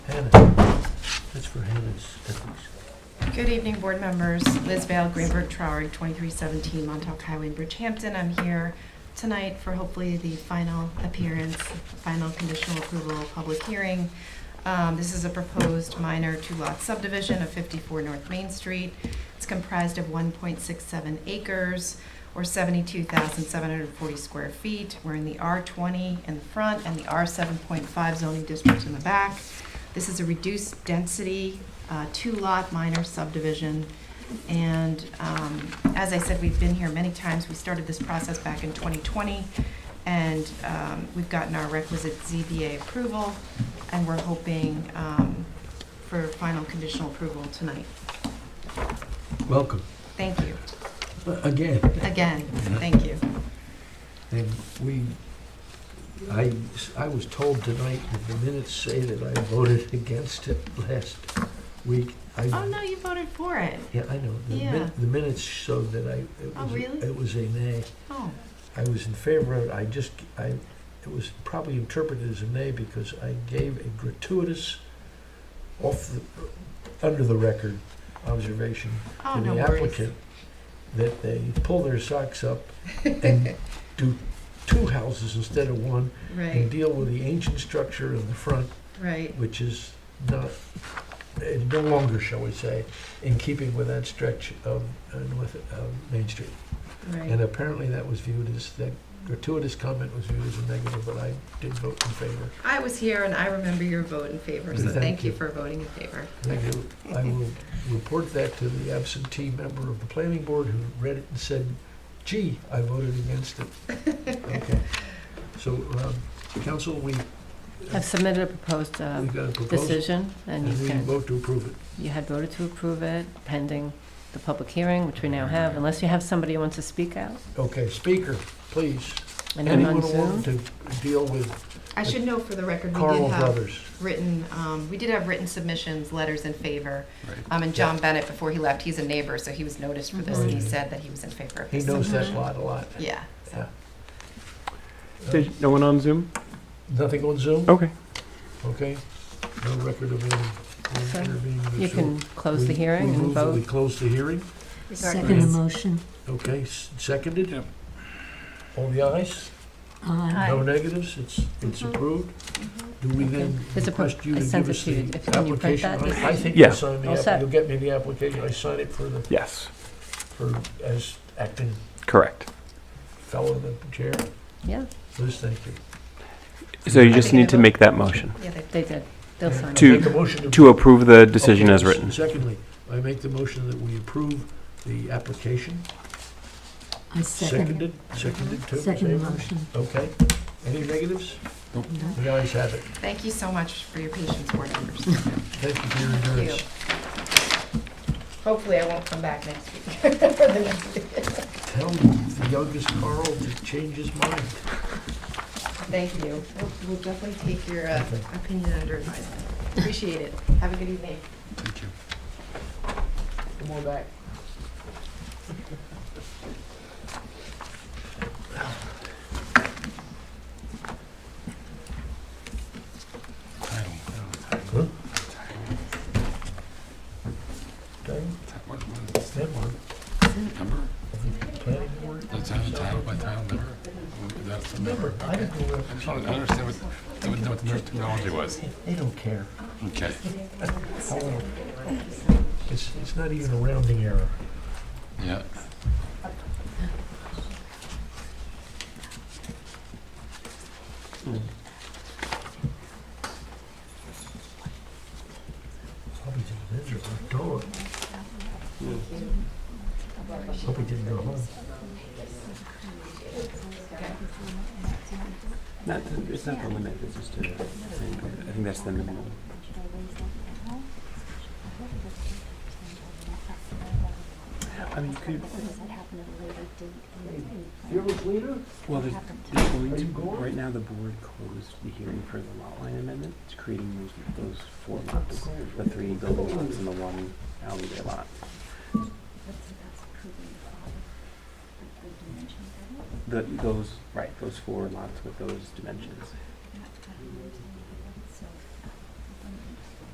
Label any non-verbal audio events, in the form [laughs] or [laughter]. That's for Hannah's ethics. Good evening, board members. Liz Vale, Greenberg Traurig, 2317 Montauk Highway, Bridgehampton. I'm here tonight for hopefully the final appearance, final conditional approval, public hearing. Um, This is a proposed minor two-lot subdivision of 54 North Main Street. It's comprised of 1.67 acres or 72,740 square feet. We're in the R20 in the front and the R7.5 zoning district in the back. This is a reduced density, uh, two-lot minor subdivision. And um, as I said, we've been here many times. We started this process back in 2020, and um, we've gotten our requisite ZBA approval, and we're hoping um, for final conditional approval tonight. Welcome, Thank you. Uh, again. Again, thank you. And we, I, I was told tonight that the minutes say that I voted [laughs] against it last week. I- Oh, no, you voted for it. Yeah, I know. The min- Yeah. The minutes showed that I, it Oh, was, really? it was a nay. Oh, I was in favor of it, I just, I, it was probably interpreted as a nay because I gave a gratuitous, off the, under the record observation oh, to no the worries. applicant that they pull their socks up [laughs] and do two houses instead of one and Right, deal with the ancient structure in the front, right, which is not, eh, no longer, shall we say, in keeping with that stretch of uh, North uh, Main Street. And uh, right. apparently that was viewed as, that gratuitous comment was viewed as a negative, but I did vote in favor. I was here, and I remember your vote in favor, so Thank thank you you. for voting in favor. I do- I will report that to the absentee member of the planning board who read it and said, gee, I voted against it. Okay. So, um, council, we, I've submitted a proposed uh, we've got a proposal, decision, and and you we can, vote to approve it. you had voted to approve it pending the public hearing, which we now have, unless you have somebody who wants to speak out, Okay, speaker, please. and I'm Anyone on who Zoom. wants to deal with I should note for the record, we Carl did have Brothers? written, um, we did have written submissions, letters in favor. Um, and John Bennett, before he left, he's a neighbor, so he was noticed for this, and he Mhm. said that he was in favor of He this. Mm-hmm. knows that Mhm. lot a lot. Yeah. Yeah. so- Uh, There's no one on Zoom? Nothing on Zoom? Okay. Okay. No record of So, any intervening. You so can close the we- we hearing and move that We vote. close the hearing. Second emotion. Okay, s- seconded? All the ayes? Aye. No negatives? It's, it's Mhm. approved? Do we then Mm-hmm. It's a pro- request you I to sent give it us to you. the If- can you print application? that I I think Yeah. you'll sign the, All app- set. you'll get me the application. I sign it for the, Yes, for, as acting correct. fellow in the chair. Yeah, Liz, thank you. So you I just think I need to vote- make that motion Yeah, they- they did. They'll sign To- it. Make a motion to approve the decision Okay, as s- written. Secondly, I make the motion that we approve the application. I second. Seconded, seconded too. Second same. emotion. Okay. Any negatives? No. The ayes have it. Thank you so much for your patience, board members. [laughs] Thank you for your Thank you. endurance. Hopefully, I won't come back next week. [laughs] for the next meeting. Tell the youngest Carl to change his mind. Thank you. We'll- We'll definitely take your uh, Okay. opinion under advisement. Appreciate it. Have a good evening. Thank you. Come on back. Okay? That one. Planning board? That's out of town, by town, never, that's the Remember, number. I didn't know I just that. wanted to understand what, didn't know what the nurse terminology was. They don't care. Okay. How old? It's, it's not even a rounding error. Yeah. Probably didn't enter the door. Hope he didn't go home. Not, the- it's not the limit, it's just a, I think that's the minimum. I mean, could, You're a leader? well, there's, there's going Are to, you going? right now, the board closed the hearing for the lot line amendment. It's creating those, those four lots, the three building lots and the one alleyway lot. The, those, right, those four lots with those dimensions.